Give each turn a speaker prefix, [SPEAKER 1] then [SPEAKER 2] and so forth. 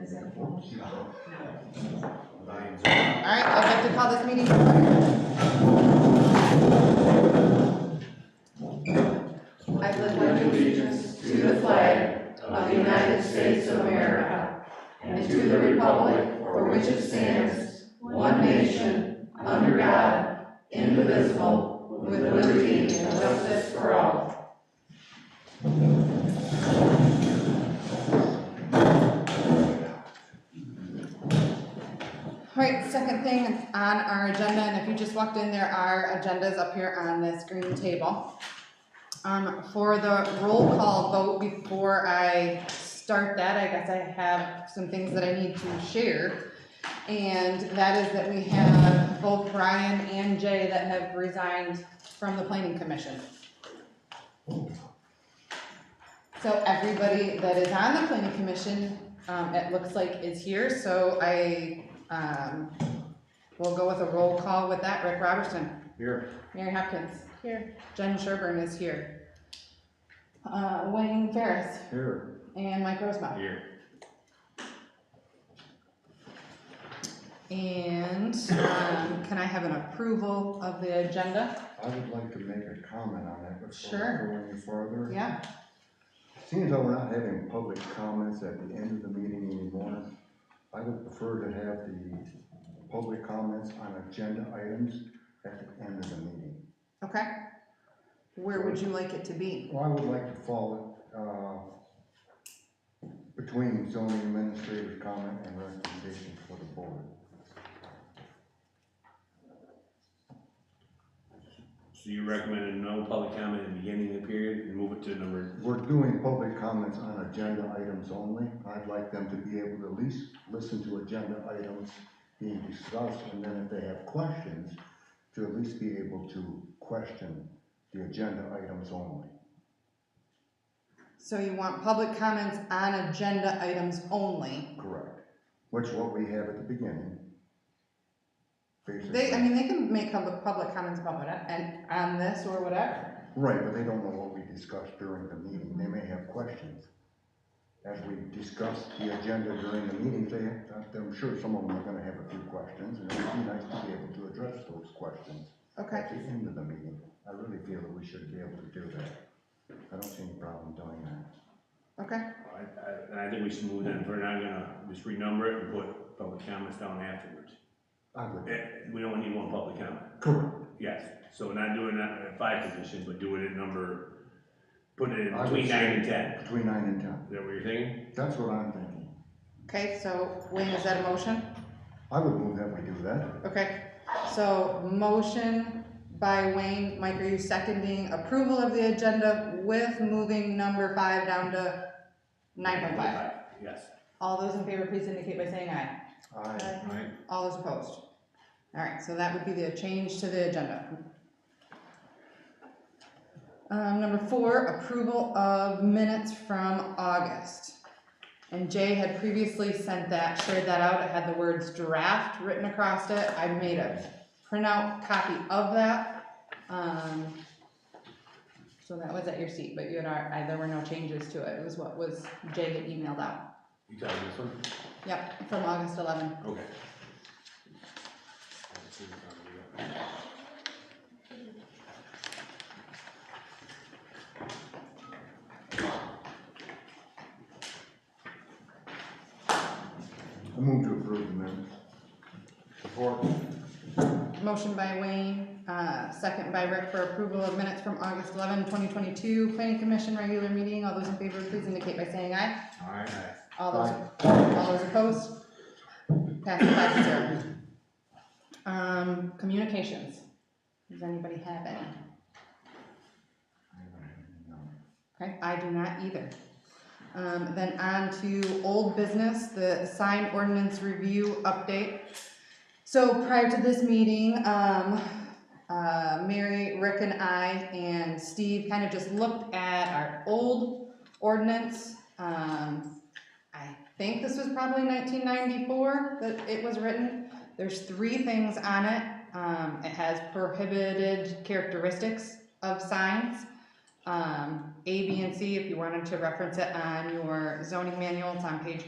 [SPEAKER 1] Is it? No.
[SPEAKER 2] All right, I'd like to call this meeting. to order. I pledge
[SPEAKER 3] allegiance to the flag of the United States of America and to the republic for which it stands, one nation, under God, indivisible, with liberty and justice for all.
[SPEAKER 2] All right, second thing on our agenda, and if you just walked in, there are agendas up here on this green table. Um, for the roll call vote, before I start that, I guess I have some things that I need to share. And that is that we have both Brian and Jay that have resigned from the planning commission. So everybody that is on the planning commission, um, it looks like is here, so I um, we'll go with a roll call with that. Rick Robertson.
[SPEAKER 1] Here.
[SPEAKER 2] Mary Hopkins. Here. Jen Sherburne is here. Uh, Wayne Ferris
[SPEAKER 1] Here.
[SPEAKER 2] and Mike Rosebaum.
[SPEAKER 1] Here.
[SPEAKER 2] And, um, can I have an approval of the agenda?
[SPEAKER 4] I would like to make a comment on that
[SPEAKER 2] Sure.
[SPEAKER 4] before we go any further.
[SPEAKER 2] Yeah,
[SPEAKER 4] Seeing as though we're not having public comments at the end of the meeting anymore, I would prefer to have the public comments on agenda items at the end of the meeting.
[SPEAKER 2] okay. Where would you like it to be?
[SPEAKER 4] Well, I would like to follow, uh, between zoning administrative comment and recommendation for the board.
[SPEAKER 5] So you recommended no public comment at the beginning of the period and move it to number,
[SPEAKER 4] We're doing public comments on agenda items only. I'd like them to be able to at least listen to agenda items being discussed, and then if they have questions, to at least be able to question the agenda items only.
[SPEAKER 2] So you want public comments on agenda items only?
[SPEAKER 4] Correct. Which what we have at the beginning.
[SPEAKER 2] They, I
[SPEAKER 4] Basically,
[SPEAKER 2] mean, they can make public, public comments about what, and on this or whatever.
[SPEAKER 4] right, but they don't know what we discussed during the meeting. They may have questions. As we discuss the agenda during the meeting, they, I'm sure some of them are gonna have a few questions, and it would be nice to be able to address those questions
[SPEAKER 2] Okay,
[SPEAKER 4] at the end of the meeting. I really feel that we should be able to do that. I don't see any problem doing that.
[SPEAKER 2] okay,
[SPEAKER 5] I, I, and I think we should move that, we're not gonna just renumber it and put public comments down afterwards.
[SPEAKER 4] I would.
[SPEAKER 5] Eh, We don't need one public comment,
[SPEAKER 4] Correct.
[SPEAKER 5] yes, so we're not doing that at five position, but do it at number, put it in
[SPEAKER 4] I would
[SPEAKER 5] between
[SPEAKER 4] say-
[SPEAKER 5] nine and ten,
[SPEAKER 4] Between nine and ten.
[SPEAKER 5] is that what you're thinking?
[SPEAKER 4] That's what I'm thinking.
[SPEAKER 2] okay, so Wayne, is that a motion?
[SPEAKER 4] I would move that we do that.
[SPEAKER 2] Okay, so motion by Wayne, Mike, are you seconding approval of the agenda with moving number five down to nine point five?
[SPEAKER 5] Yes,
[SPEAKER 2] All those in favor, please indicate by saying aye.
[SPEAKER 4] Aye.
[SPEAKER 1] Right.
[SPEAKER 2] All those opposed? All right, so that would be the change to the agenda. Um, number four, approval of minutes from August. And Jay had previously sent that, shared that out, it had the words draft written across it, I made a printout copy of that. Um, so that was at your seat, but you had, our- I- there were no changes to it, it was what was, Jay had emailed out,
[SPEAKER 5] you got this one?
[SPEAKER 2] yep, from August eleven.
[SPEAKER 5] Okay.
[SPEAKER 4] I move to approve the minutes.
[SPEAKER 1] Support.
[SPEAKER 2] Motion by Wayne, uh, second by Rick for approval of minutes from August 11, 2022, Planning Commission regular meeting. All those in favor, please indicate by saying aye.
[SPEAKER 1] Alright.
[SPEAKER 2] All those, all those opposed? Passes five to zero. Um, Communications. Does anybody have any? Okay, I do not either. Um, then on to old business, the sign ordinance review update. So prior to this meeting, um, uh, Mary, Rick and I and Steve kind of just looked at our old ordinance. Um, I think this was probably nineteen ninety-four that it was written. There's three things on it. Um, it has prohibited characteristics of signs um, A, B, and C, if you wanted to reference it on your zoning manual, it's on page